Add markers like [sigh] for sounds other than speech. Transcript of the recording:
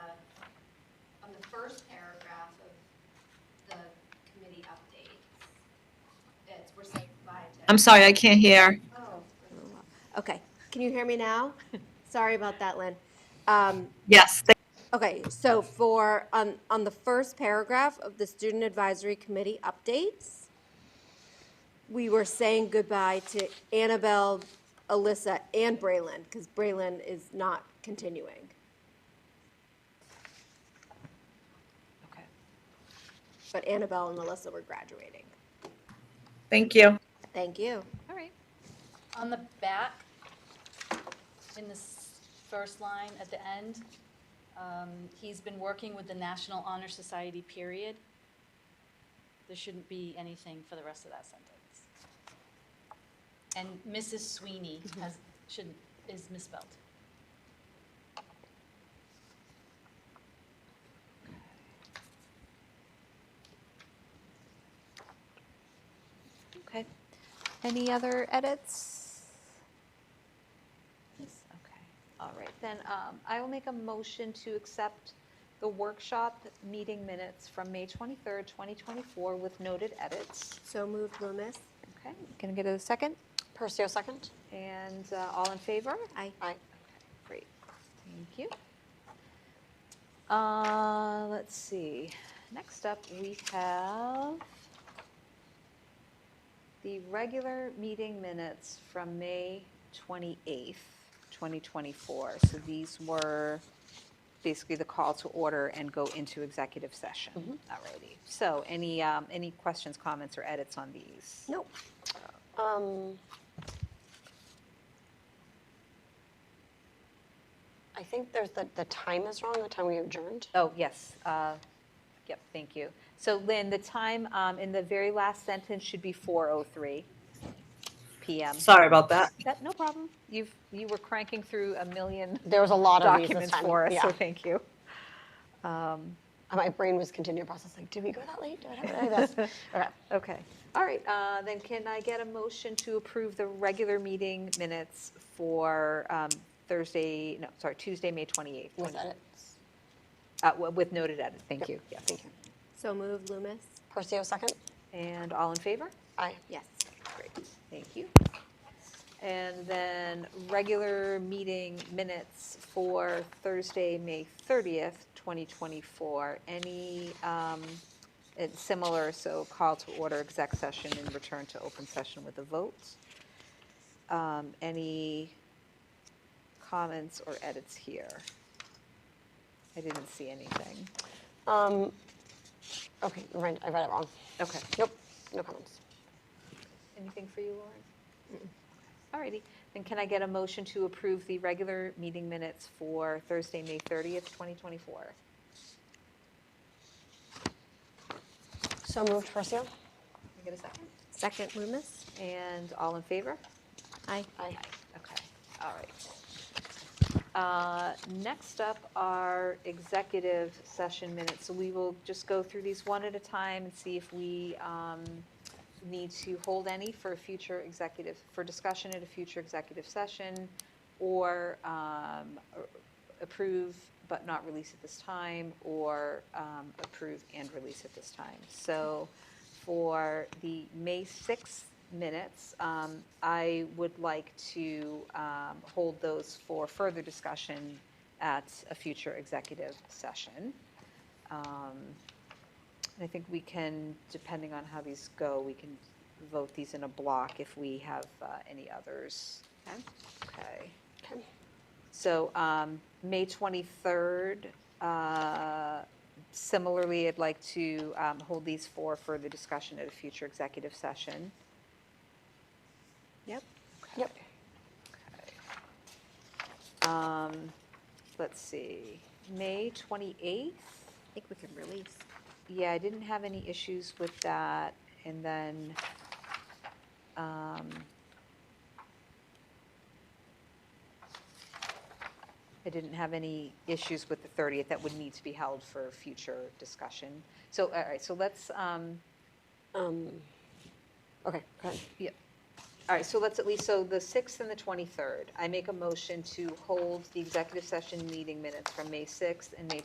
I'm sorry, I can't hear. Okay, can you hear me now? [laughs] Sorry about that, Lynn. Um, Yes, th- Okay, so for, on, on the first paragraph of the Student Advisory Committee updates, we were saying goodbye to Annabelle, Alyssa, and Braylon, because Braylon is not continuing. Okay. But Annabelle and Alyssa were graduating. thank you. Thank you. All right. On the back, in the s- first line at the end, um, he's been working with the National Honor Society, period. There shouldn't be anything for the rest of that sentence. And Mrs. Sweeney has, shouldn't, is misspelled. Okay. Any other edits? Yes, Okay, all right, then um, I will make a motion to accept the workshop meeting minutes from May 23rd, 2024 with noted edits. So moved, Loomis. Okay, can I get a second? Percio, second? And uh, all in favor? Aye. Aye. Great, thank you. Uh, Let's see, next up, we have the regular meeting minutes from May 28th, 2024. So these were basically the call to order and go into executive session. Alrighty, so any, um, any questions, comments, or edits on these? Nope. Um, I think there's, the, the time is wrong, the time we adjourned. Oh, yes. uh, Yep, thank you. So Lynn, the time um, in the very last sentence should be 4:03 PM. Sorry about that. That, no problem. You've, you were cranking through a million There was a lot of these this documents time, for us, so yeah. thank you. My brain was continuing processing, did we go that late? Did I- did I [laughs] this? Okay. Okay. All right, uh, then can I get a motion to approve the regular meeting minutes for um, Thursday, no, sorry, Tuesday, May 28th? Was that 20 it? uh, w- With noted edit, thank you. Yes. Thank you. So moved, Loomis. Percio, second? And all in favor? Aye. Yes. Great, thank you. And then regular meeting minutes for Thursday, May 30th, 2024. Any, um, it's similar, so call to order exec session and return to open session with a vote. Um, Any comments or edits here? I didn't see anything. Um, okay, I read I read it wrong. Okay. Nope, no comments. Anything for you, Lauren? All righty, then can I get a motion to approve the regular meeting minutes for Thursday, May 30th, 2024? So moved, Percio? Can I get a second? Second, Loomis. And all in favor? Aye. Aye. Okay, all right. Uh, Next up are executive session minutes. So we will just go through these one at a time and see if we um, need to hold any for a future executive, for discussion at a future executive session, or um, or approve but not release at this time, or um, approve and release at this time. So for the May 6th minutes, um, I would like to um, hold those for further discussion at a future executive session. Um, and I think we can, depending on how these go, we can vote these in a block if we have uh, any others. Okay. Okay. So um, May 23rd, uh, similarly, I'd like to um, hold these for further discussion at a future executive session. Yep. Yep. Um, Let's see, May 28th? I think we can release. Yeah, I didn't have any issues with that, and then, um, I didn't have any issues with the 30th that would need to be held for future discussion. So, all right, so let's, um, Um, okay, go ahead. Yep. All right, so let's at least, so the 6th and the 23rd, I make a motion to hold the executive session meeting minutes from May 6th and May